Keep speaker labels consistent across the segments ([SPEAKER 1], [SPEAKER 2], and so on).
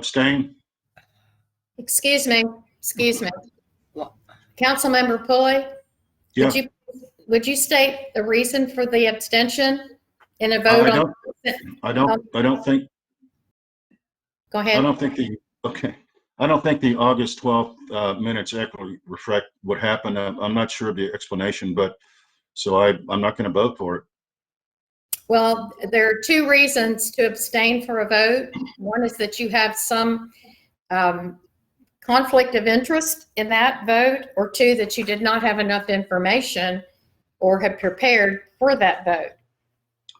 [SPEAKER 1] Abstain?
[SPEAKER 2] Excuse me, excuse me. Councilmember Pulley?
[SPEAKER 1] Yeah.
[SPEAKER 2] would you Would you state the reason for the abstention in a
[SPEAKER 1] I
[SPEAKER 2] vote on,
[SPEAKER 1] don't, I don't, I don't think,
[SPEAKER 2] go
[SPEAKER 1] I
[SPEAKER 2] ahead.
[SPEAKER 1] don't think the, okay. I don't think the August 12th uh, minutes actually reflect what happened. I'm I'm not sure of the explanation, but, so I, I'm not going to vote for it.
[SPEAKER 2] Well, there are two reasons to abstain for a vote. One is that you have some um, conflict of interest in that vote, or two, that you did not have enough information or have prepared for that vote.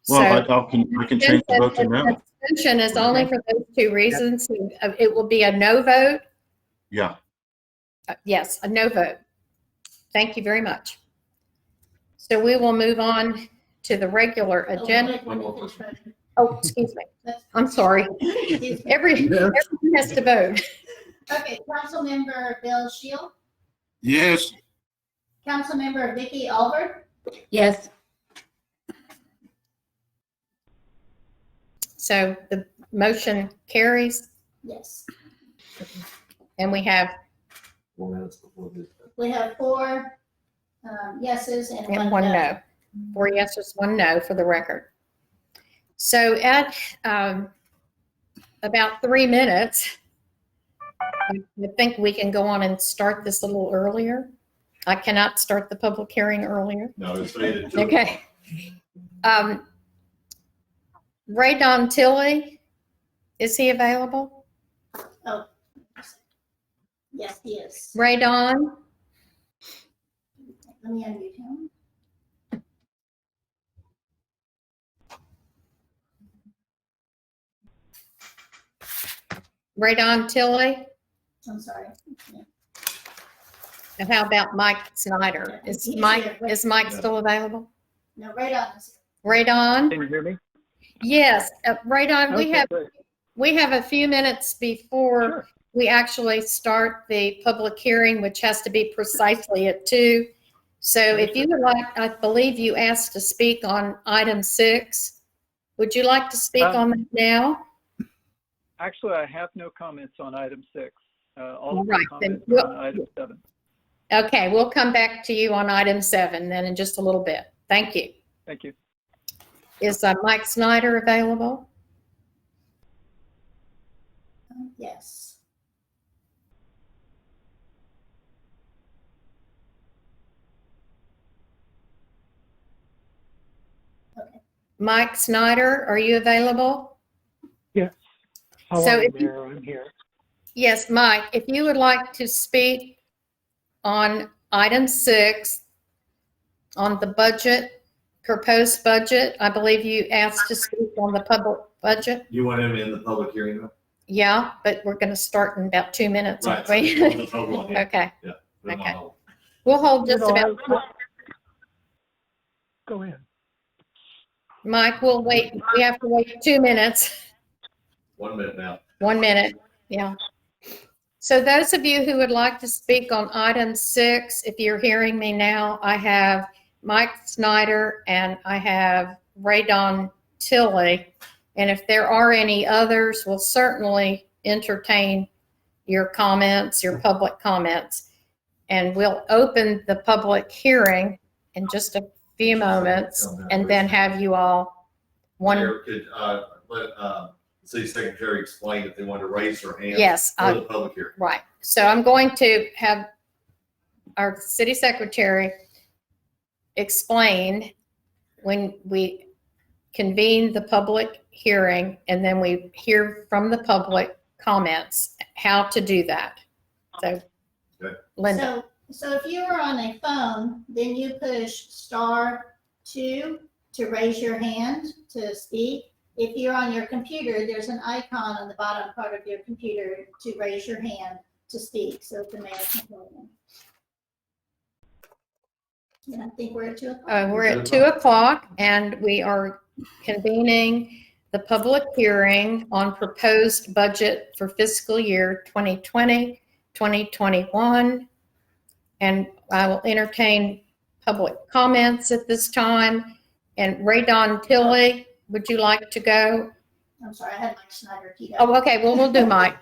[SPEAKER 1] Well,
[SPEAKER 2] So-
[SPEAKER 1] I I'll can, I can change the vote to no.
[SPEAKER 2] Abstention is only for those two reasons. Uh, It will be a no vote.
[SPEAKER 1] Yeah,
[SPEAKER 2] Uh, Yes, a no vote. Thank you very much. So we will move on to the regular
[SPEAKER 3] Oh,
[SPEAKER 2] agenda. Oh, excuse me. I'm sorry.
[SPEAKER 3] Excuse me.
[SPEAKER 2] Every,
[SPEAKER 4] Yes.
[SPEAKER 2] everyone has to vote.
[SPEAKER 3] Okay, Councilmember Bill Shield,
[SPEAKER 4] Yes.
[SPEAKER 3] Councilmember Vicky Albert,
[SPEAKER 5] Yes,
[SPEAKER 2] So the motion carries
[SPEAKER 3] yes.
[SPEAKER 2] and we have
[SPEAKER 6] four minutes before the
[SPEAKER 3] We have four um, yeses and
[SPEAKER 2] And
[SPEAKER 3] one
[SPEAKER 2] one
[SPEAKER 3] no. Mm-hmm.
[SPEAKER 2] no. Four yeses, one no for the record. So at um, about three minutes, I I think we can go on and start this a little earlier. I cannot start the public hearing earlier.
[SPEAKER 6] No, it's made it to.
[SPEAKER 2] Okay. Um, Ray Don Tilly, is he available?
[SPEAKER 3] Yes, he is.
[SPEAKER 2] Ray Don,
[SPEAKER 3] Let me unmute him.
[SPEAKER 2] Ray Don Tilly,
[SPEAKER 3] I'm sorry.
[SPEAKER 2] and how about Mike Snyder? Is
[SPEAKER 3] He's
[SPEAKER 2] Mike,
[SPEAKER 3] here, Ray.
[SPEAKER 2] is Mike still available?
[SPEAKER 3] No, right on.
[SPEAKER 2] Ray Don?
[SPEAKER 7] Can you hear me?
[SPEAKER 2] Yes, uh, right on. We
[SPEAKER 7] Okay,
[SPEAKER 2] have,
[SPEAKER 7] great.
[SPEAKER 2] we have a few minutes before
[SPEAKER 7] Sure.
[SPEAKER 2] we actually start the public hearing, which has to be precisely at two. So if you would like, I believe you asked to speak on item six. Would you like to speak
[SPEAKER 7] Um,
[SPEAKER 2] on that now?
[SPEAKER 7] Actually, I have no comments on item six. Uh,
[SPEAKER 2] All
[SPEAKER 7] All of
[SPEAKER 2] right,
[SPEAKER 7] the
[SPEAKER 2] then
[SPEAKER 7] comments
[SPEAKER 2] we'll-
[SPEAKER 7] are on item seven.
[SPEAKER 2] Okay, we'll come back to you on item seven then in just a little bit. Thank you.
[SPEAKER 7] Thank you.
[SPEAKER 2] Is uh, Mike Snyder available?
[SPEAKER 3] Yes.
[SPEAKER 2] Mike Snyder, are you available?
[SPEAKER 7] Yes.
[SPEAKER 2] How So are you, if you-
[SPEAKER 7] I'm here.
[SPEAKER 2] Yes, Mike, if you would like to speak on item six, on the budget, proposed budget, I believe you asked to speak on the public budget.
[SPEAKER 6] You want him in the public hearing though?
[SPEAKER 2] Yeah, but we're going to start in about two minutes, aren't we?
[SPEAKER 6] The public one, yeah.
[SPEAKER 2] Okay,
[SPEAKER 6] Put him on
[SPEAKER 2] okay.
[SPEAKER 6] hold.
[SPEAKER 2] we'll hold just
[SPEAKER 7] No, I-
[SPEAKER 2] about,
[SPEAKER 7] Go ahead.
[SPEAKER 2] Mike, we'll wait, we have to wait two minutes.
[SPEAKER 6] One minute now.
[SPEAKER 2] One minute, yeah. So those of you who would like to speak on item six, if you're hearing me now, I have Mike Snyder and I have Ray Don Tilly. And if there are any others, we'll certainly entertain your comments, your public comments. And we'll open the public hearing in just a few moments and then have you all one,
[SPEAKER 6] Mayor could, uh, let, uh, city secretary explain if they want to raise their hand.
[SPEAKER 2] yes. uh,
[SPEAKER 6] For
[SPEAKER 2] I-
[SPEAKER 6] the public hearing.
[SPEAKER 2] Right. So I'm going to have our city secretary explain when we convene the public hearing and then we hear from the public comments, how to do that. So
[SPEAKER 6] Okay.
[SPEAKER 2] Linda,
[SPEAKER 3] So, so if you are on a phone, then you push star two to raise your hand to speak. If you're on your computer, there's an icon on the bottom part of your computer to raise your hand to speak, so the mayor can go in. And I think we're at two o'clock.
[SPEAKER 2] uh, we're at two o'clock and we are convening the public hearing on proposed budget for fiscal year 2020, 2021. And I will entertain public comments at this time. And Ray Don Tilly, would you like to go? Oh,
[SPEAKER 8] I'm sorry, I had Mike Snyder keyed up.
[SPEAKER 3] Oh, okay, well, we'll do Mike.